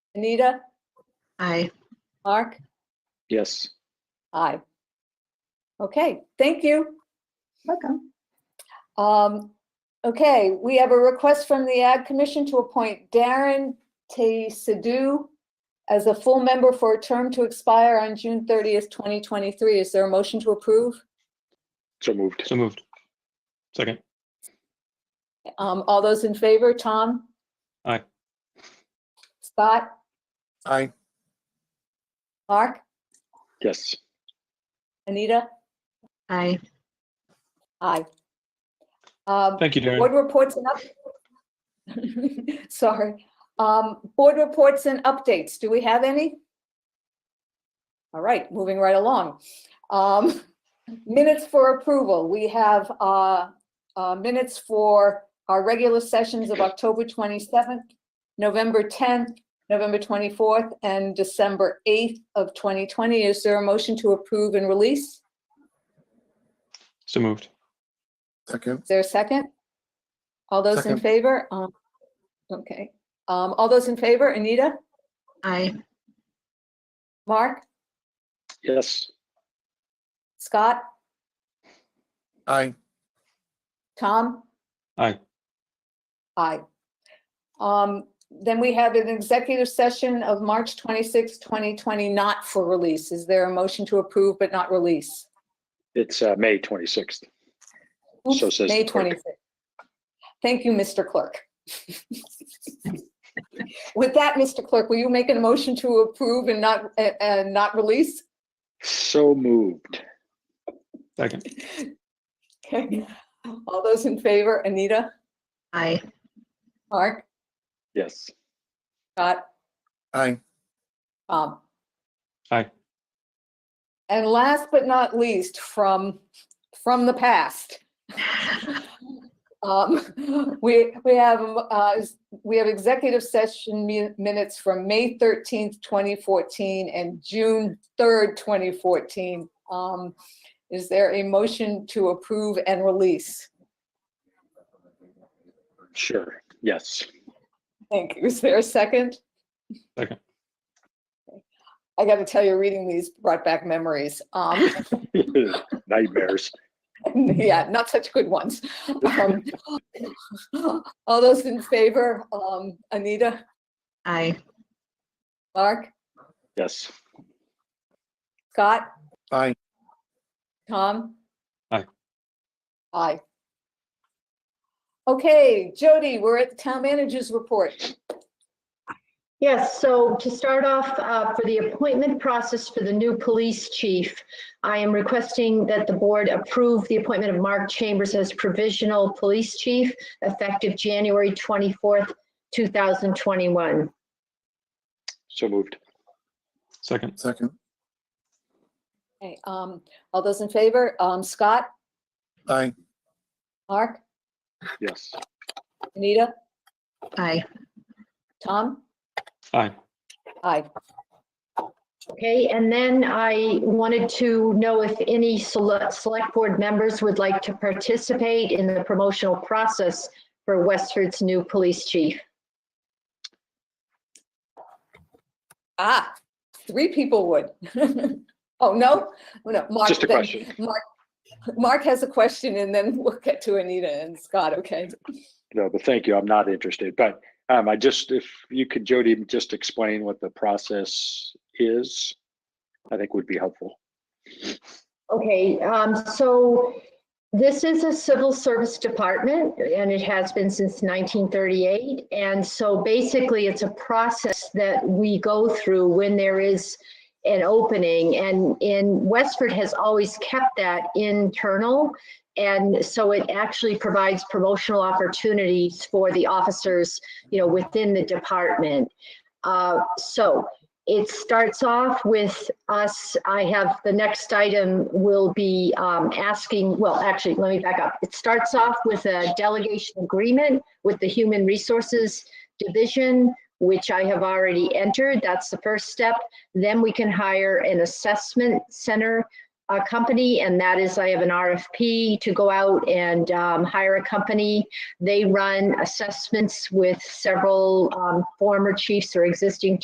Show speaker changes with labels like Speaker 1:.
Speaker 1: Anita?
Speaker 2: Aye.
Speaker 1: Mark?
Speaker 3: Yes.
Speaker 1: Aye. Okay, thank you.
Speaker 2: Welcome.
Speaker 1: Um, okay, we have a request from the Ag Commission to appoint Darren T. Sidhu as a full member for a term to expire on June thirtieth, twenty twenty-three. Is there a motion to approve?
Speaker 3: So moved.
Speaker 4: So moved. Second.
Speaker 1: Um, all those in favor, Tom?
Speaker 4: Aye.
Speaker 1: Scott?
Speaker 5: Aye.
Speaker 1: Mark?
Speaker 3: Yes.
Speaker 1: Anita?
Speaker 2: Aye.
Speaker 1: Aye. Um,
Speaker 4: Thank you,
Speaker 1: Board
Speaker 4: Darren.
Speaker 1: reports and up. Sorry. Um, board reports and updates. Do we have any? All right, moving right along. Um, minutes for approval. We have, uh, uh, minutes for our regular sessions of October 27th, November 10th, November 24th, and December 8th of 2020. Is there a motion to approve and release?
Speaker 4: So moved.
Speaker 5: Second.
Speaker 1: Is there a second? All those in
Speaker 5: Second.
Speaker 1: favor? Um, Okay, Um, all those in favor, Anita,
Speaker 2: Aye.
Speaker 1: Mark,
Speaker 3: Yes.
Speaker 1: Scott,
Speaker 5: Aye.
Speaker 1: Tom?
Speaker 4: Aye.
Speaker 1: Aye. Um, Then we have an executive session of March 26, 2020, not for release. Is there a motion to approve but not release?
Speaker 3: It's uh, May 26th. So
Speaker 1: Oops,
Speaker 3: says the
Speaker 1: May
Speaker 3: clerk.
Speaker 1: 26. Thank you, Mr. Clerk. With that, Mr. Clerk, will you make a motion to approve and not, and- and not release?
Speaker 3: So moved.
Speaker 4: Second.
Speaker 1: Okay, all those in favor, Anita,
Speaker 2: Aye.
Speaker 1: Mark,
Speaker 3: Yes.
Speaker 1: Scott,
Speaker 5: Aye.
Speaker 1: Tom.
Speaker 4: Aye.
Speaker 1: And last but not least, from, from the past, um, we, we have, um, uh, is- we have executive session mi- minutes from May 13th, 2014 and June 3rd, 2014. Um, Is there a motion to approve and release?
Speaker 3: Sure. Yes.
Speaker 1: Thank you. Is there a second?
Speaker 4: Second.
Speaker 1: I got to tell you, reading these brought back memories. Um,
Speaker 3: Nightmares.
Speaker 1: yeah, not such good ones. Um, all those in favor, um, Anita,
Speaker 2: Aye.
Speaker 1: Mark,
Speaker 3: Yes.
Speaker 1: Scott,
Speaker 5: Aye.
Speaker 1: Tom?
Speaker 4: Aye.
Speaker 1: Aye. Okay, Jody, we're at the town manager's report.
Speaker 6: Yes, so to start off, uh, for the appointment process for the new police chief, I am requesting that the board approve the appointment of Mark Chambers as provisional police chief effective January 24th, 2021.
Speaker 3: So moved.
Speaker 4: Second.
Speaker 5: Second.
Speaker 1: Okay, um, all those in favor, um, Scott,
Speaker 5: Aye.
Speaker 1: Mark,
Speaker 3: Yes.
Speaker 1: Anita,
Speaker 2: Aye.
Speaker 1: Tom?
Speaker 4: Aye.
Speaker 1: Aye.
Speaker 6: Okay, and then I wanted to know if any select, select board members would like to participate in the promotional process for Westford's new police chief.
Speaker 1: Ah, three people would. Oh, no? No, Mark.
Speaker 3: Just a
Speaker 1: then-
Speaker 3: question.
Speaker 1: Mark, Mark has a question and then we'll get to Anita and Scott, okay?
Speaker 3: No, but thank you. I'm not interested. But um, I just, if you could, Jody, just explain what the process is, I think would be helpful.
Speaker 6: Okay, um, so this is a civil service department and it has been since nineteen thirty-eight. And so basically, it's a process that we go through when there is an opening. And in Westford has always kept that internal. And so it actually provides promotional opportunities for the officers, you know, within the department. Uh, so it starts off with us, I have, the next item will be um, asking, well, actually, let me back up. It starts off with a delegation agreement with the Human Resources Division, which I have already entered. That's the first step. Then we can hire an assessment center uh, company, and that is, I have an RFP to go out and um, hire a company. They run assessments with several um, former chiefs or existing